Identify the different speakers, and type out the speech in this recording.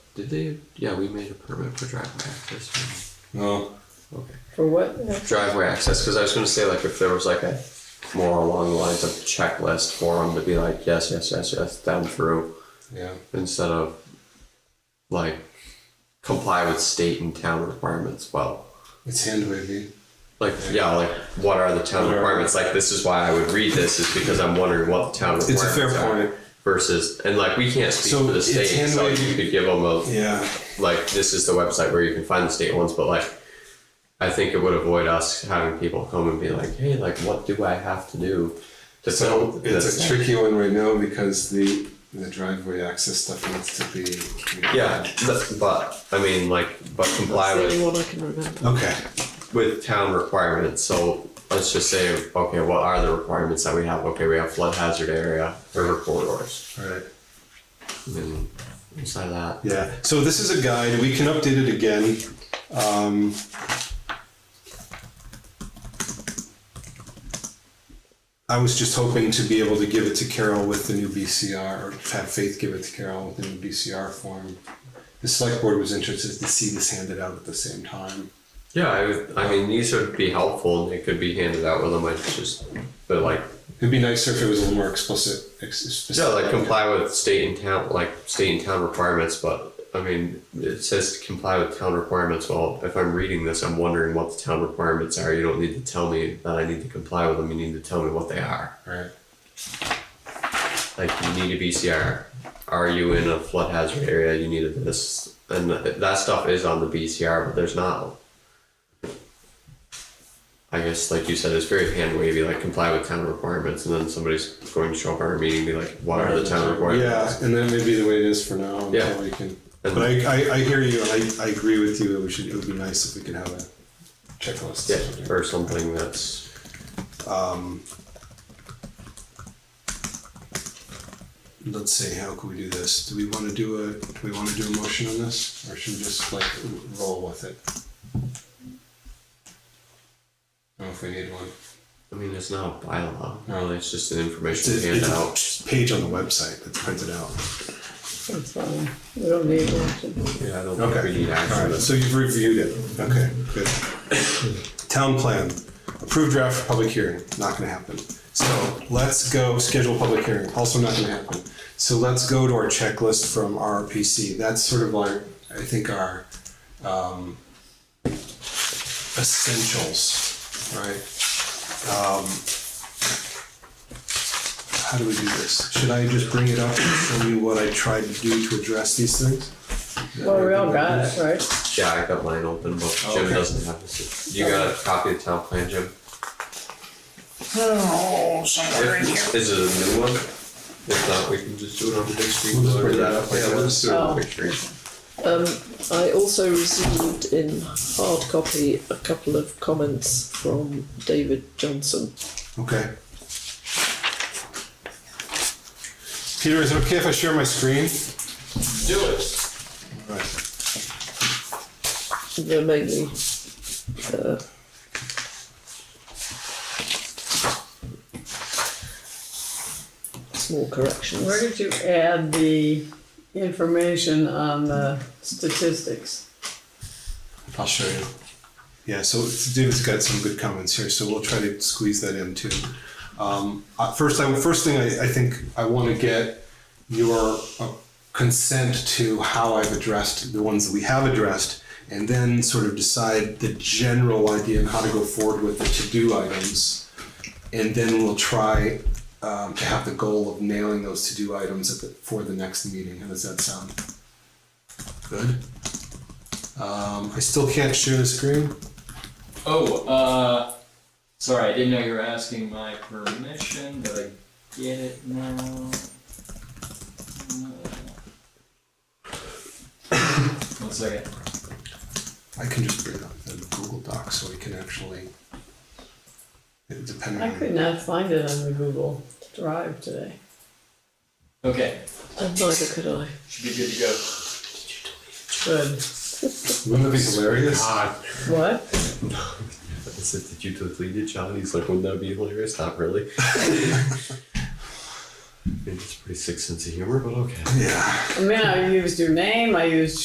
Speaker 1: Did they? Yeah, we made a permit for driveway access.
Speaker 2: No,
Speaker 1: Okay.
Speaker 3: For what?
Speaker 1: Driveway access, because I was going to say, like, if there was like a more along the lines of checklist for them to be like, yes, yes, yes, yes, down through,
Speaker 2: yeah,
Speaker 1: instead of like comply with state and town requirements. Well,
Speaker 2: it's hand wavy.
Speaker 1: like, yeah, like, what are the town requirements? Like, this is why I would read this, is because I'm wondering what the town
Speaker 2: a
Speaker 1: requirements
Speaker 2: fair
Speaker 1: are
Speaker 2: point.
Speaker 1: Versus, and like, we can't speak
Speaker 2: So
Speaker 1: for the
Speaker 2: it's
Speaker 1: state, so
Speaker 2: hand-wavy-
Speaker 1: you could give them a
Speaker 2: Yeah,
Speaker 1: like this is the website where you can find the state ones, but like I think it would avoid us having people come and be like, hey, like what do I have to do to
Speaker 2: so
Speaker 1: build
Speaker 2: it's
Speaker 1: this
Speaker 2: a
Speaker 1: thing?"
Speaker 2: tricky one right now because the the driveway access stuff needs to be.
Speaker 1: Yeah, but, but I mean, like, but comply
Speaker 3: That's the only
Speaker 1: with
Speaker 3: one I can remember.
Speaker 2: Okay.
Speaker 1: with town requirements. So let's just say, okay, what are the requirements that we have? Okay, we have flood hazard area, river corridors,
Speaker 2: All right.
Speaker 1: and inside that.
Speaker 2: Yeah. So this is a guide. We can update it again. Um, I was just hoping to be able to give it to Carol with the new BCR, or have Faith give it to Carol with the new BCR form. The select board was interested to see this handed out at the same time.
Speaker 1: Yeah, I, would- I mean, these would be helpful. and They could be handed out with them. I just, but like,
Speaker 2: It'd be nicer if it was a little more explicit. Ex- specific.
Speaker 1: Yeah, like comply with state and town, like state and town requirements, but I mean, it says to comply with town requirements. Well, if I'm reading this, I'm wondering what the town requirements are. You don't need to tell me that I need to comply with them. You need to tell me what they are.
Speaker 2: Right.
Speaker 1: Like you need a BCR. Are you in a flood hazard area? You need a this, and that stuff is on the BCR, but there's not. I guess, like you said, it's very hand wavy. Like comply with town requirements, and then somebody's going to show up at our meeting and be like, "What are the town requirements?"
Speaker 2: Yeah, and that may be the way it is for now. Until
Speaker 1: Yeah.
Speaker 2: We can.
Speaker 1: And-
Speaker 2: But I, I, I hear you, and I, I agree with you. It, we should, it would be nice if we could have a checklist.
Speaker 1: Yeah, or something that's
Speaker 2: Um, let's see. How can we do this? Do we want to do a? Do we want to do a motion on this, or should we just like roll with it? I don't know if we need one.
Speaker 1: I mean it's not a bylaw.
Speaker 2: No.
Speaker 1: Really, it's just an
Speaker 2: It's
Speaker 1: information
Speaker 2: a, it's a
Speaker 1: handout.
Speaker 2: just page on the website that's printed out.
Speaker 3: It's fine. We don't need one.
Speaker 1: Yeah, I don't think we need
Speaker 2: All right,
Speaker 1: action.
Speaker 2: so you've reviewed it. Okay, good. Town plan, approved draft for public hearing, not gonna happen. So let's go schedule public hearing, also not gonna happen. So let's go to our checklist from RPC. That's sort of like, I think our um, essentials, right? Um, How do we do this? Should I just bring it up and show you what I tried to do to address these things?
Speaker 3: Well, we all got it, right?
Speaker 1: Yeah, I got mine open, but
Speaker 2: Oh,
Speaker 1: Jim
Speaker 2: okay.
Speaker 1: doesn't have this. You got a copy of town plan, Jim?
Speaker 4: Oh, somewhere in here.
Speaker 1: If, is it a new one? If not, we can just do it on the big screen.
Speaker 2: We'll just
Speaker 1: or
Speaker 2: bring
Speaker 1: that-
Speaker 2: it up, I
Speaker 1: Yeah, we'll
Speaker 2: guess.
Speaker 1: just do it on the
Speaker 3: Oh.
Speaker 1: big screen.
Speaker 3: Um, I also received in hard copy a couple of comments from David Johnson.
Speaker 2: Okay. Peter, is it okay if I share my screen?
Speaker 1: Do it.
Speaker 2: All right.
Speaker 3: They're mainly uh, small corrections.
Speaker 5: Where did you add the information on the statistics?
Speaker 2: I'll show you. Yeah, so David's got some good comments here, so we'll try to squeeze that in too. Um, uh, first, I first thing I, I think I want to get your uh, consent to how I've addressed the ones that we have addressed, and then sort of decide the general idea and how to go forward with the to-do items. and then we'll try um, to have the goal of nailing those to-do items at the, for the next meeting. How does that sound? Good. Um, I still can't share the screen.
Speaker 6: Oh, uh, sorry, I didn't know you were asking my permission, but I get it now. Uh, One second.
Speaker 2: I can just bring up the Google Doc so we can actually, it- depending
Speaker 5: I could
Speaker 2: on.
Speaker 5: not find it on the Google Drive today.
Speaker 6: Okay,
Speaker 3: And neither could I.
Speaker 6: should be good to go.
Speaker 5: Good.
Speaker 2: Wouldn't that be hilarious?
Speaker 1: Ah,
Speaker 5: What?
Speaker 1: is it that you deleted John? He's like, wouldn't that be hilarious? Not really. I mean, it's a pretty sick sense of humor, but okay.
Speaker 2: Yeah.
Speaker 5: I mean, I used your name, I used